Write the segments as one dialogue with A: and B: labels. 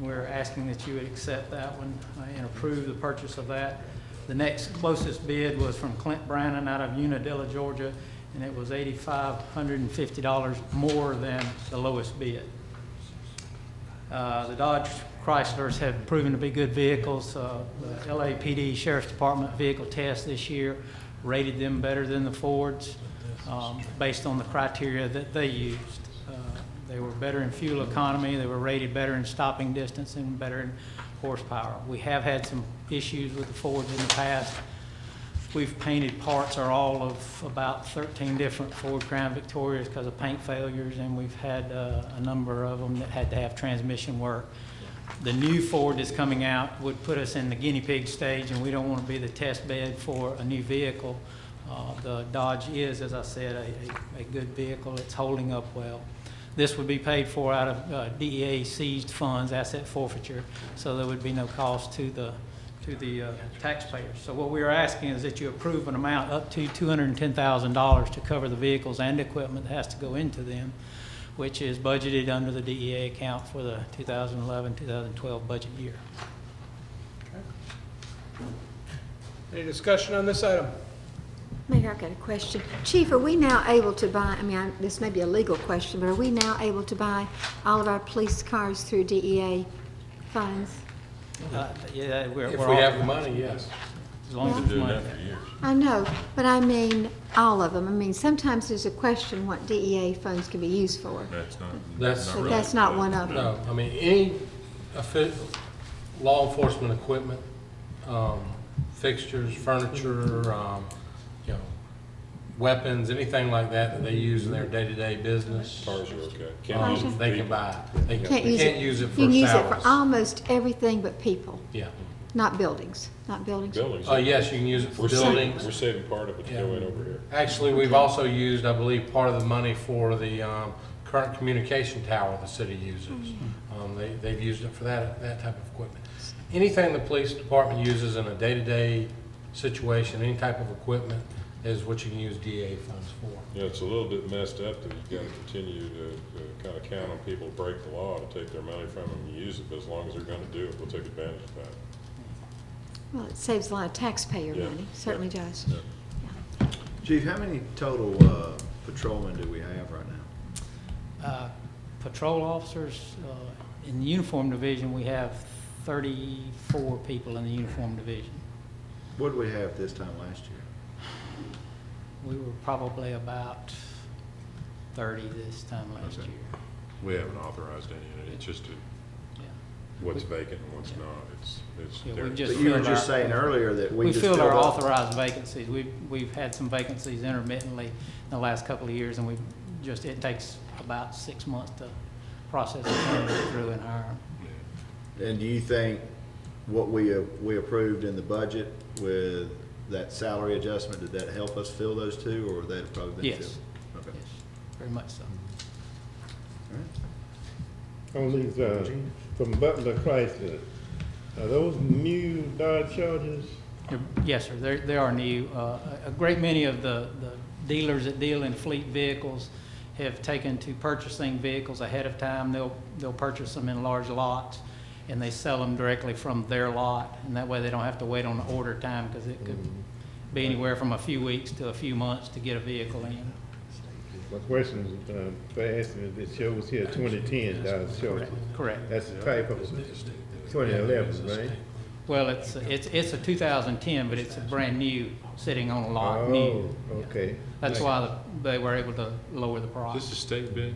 A: We're asking that you would accept that one uh, and approve the purchase of that. The next closest bid was from Clint Brannon out of Unadilla, Georgia, and it was eighty-five hundred and fifty dollars more than the lowest bid. Uh, The Dodge Chryslers have proven to be good vehicles. Uh, The LAPD Sheriff's Department vehicle test this year rated them better than the Fords um, based on the criteria that they used. Uh, They were better in fuel economy, they were rated better in stopping distance, and better in horsepower. We have had some issues with the Fords in the past. We've painted parts or all of about 13 different Ford Crown Victorias because of paint failures, and we've had uh, a number of them that had to have transmission work. The new Ford that's coming out would put us in the guinea pig stage, and we don't want to be the test bed for a new vehicle. Uh, The Dodge is, as I said, a- a a good vehicle. It's holding up well. This would be paid for out of uh, DEA seized funds, asset forfeiture, so there would be no cost to the, to the uh, taxpayers. So what we are asking is that you approve an amount up to $210,000 to cover the vehicles and equipment that has to go into them, which is budgeted under the DEA account for the 2011, 2012 budget year.
B: Any discussion on this item?
C: Mayor, I've got a question. Chief, are we now able to buy, I mean, I- this may be a legal question, but are we now able to buy all of our police cars through DEA funds?
A: Uh, Yeah, we're,
B: If
A: we're
B: we have
A: all,
B: the money, yes.
A: as long as
C: Been
A: it's
D: Doing
A: money.
D: that for years.
C: I know, but I mean, all of them. I mean, sometimes there's a question what DEA funds can be used for.
D: That's not.
B: That's-
D: really-
C: But that's not one of them.
B: No, I mean, any offi- law enforcement equipment, um, fixtures, furniture, um, you know, weapons, anything like that that they use in their day-to-day business,
D: Cars are okay.
B: um,
D: Can't use
B: they can
D: people.
B: buy. They
C: Can't
B: they
C: use it.
B: can't use it for
C: You can use it for
B: salaries.
C: almost everything but people,
B: Yeah.
C: not buildings, not buildings.
D: Buildings.
B: Oh, yes, you can use it for
D: We're saving,
B: buildings.
D: we're saving part of it to go in over here.
B: Actually, we've also used, I believe, part of the money for the um, current communication tower the city uses. Um, they- They've used it for that, that type of equipment. Anything the police department uses in a day-to-day situation, any type of equipment, is what you can use DA funds for.
D: Yeah, it's a little bit messed up that you gotta continue to, to kinda count on people to break the law to take their money from them and use it, but as long as they're gonna do it, we'll take advantage of that.
C: Well, it saves a lot of taxpayer
D: Yeah.
C: money, certainly does.
D: Yeah.
E: Chief, how many total uh, patrolmen do we have right now?
A: Uh, Patrol officers, uh, in the uniform division, we have 34 people in the uniform division.
E: What did we have this time last year?
A: We were probably about 30 this time last
D: Okay.
A: year.
D: We haven't authorized any, of it. it's just a-
A: Yeah.
D: what's vacant and what's not, it's, it's.
A: Yeah, we
D: there.
A: just-
E: But you were
A: filled
E: just
A: our-
E: saying earlier that we
A: We
E: just
A: filled
E: filled
A: our
E: up.
A: authorized vacancies. We've, we've had some vacancies intermittently in the last couple of years, and we've just, it takes about six months to process the candidate through and hire 'em.
E: And do you think what we, uh, we approved in the budget with that salary adjustment, did that help us fill those two, or would that have probably been
A: Yes.
E: filled? Okay.
A: Yes, very much so.
F: On these, uh, from Butler Chrysler, are those new Dodge Chargers?
A: They're- Yes, sir, there, there are new, uh, a a great many of the, the dealers that deal in fleet vehicles have taken to purchasing vehicles ahead of time. They'll, they'll purchase them in large lots, and they sell them directly from their lot, and that way they don't have to wait on the order time, because it could
F: Mm-hmm.
A: be anywhere from a few weeks to a few months to get a vehicle in.
F: My question is, um, for asking if it shows here twenty ten Dodge Charger.
A: Correct.
F: That's the type of twenty eleven, right?
A: Well, it's, it's, it's a 2010, but it's a brand new, sitting on a lot,
F: Oh,
A: new.
F: okay,
A: That's why the- they were able to lower the price.
D: This is state bid,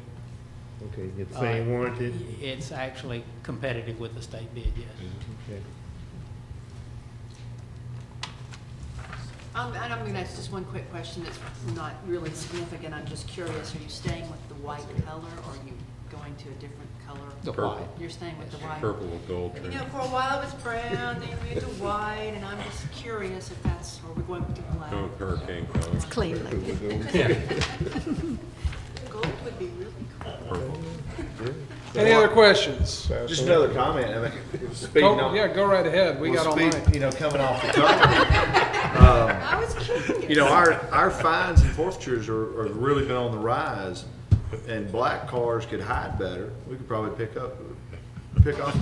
F: okay, it's
A: Uh,
F: same warranty?
A: It's actually competitive with the state bid, yes.
F: Okay.
G: Um, and I'm gonna ask just one quick question that's not really significant, I'm just curious, are you staying with the white color, or are you going to a different
A: The
G: color?
A: why?
G: You're staying with the white?
D: purple with gold
G: You
D: trim.
G: know, for a while it was brown, then you moved to white, and I'm just curious if that's, are we going to black?
D: Go with hurricane colors,
C: Clean, like,
G: Gold would be really cool.
D: purple.
B: Any other questions?
E: Just another comment, I mean, speaking
B: Go-
E: on.
B: Yeah, go right ahead, we
E: well,
B: got all
E: speak-
B: night.
E: You know, coming off the top.
G: I was curious.
E: You know, our, our fines and forfeitures are, are really been on the rise, and black cars could hide better. We could probably pick up, pick off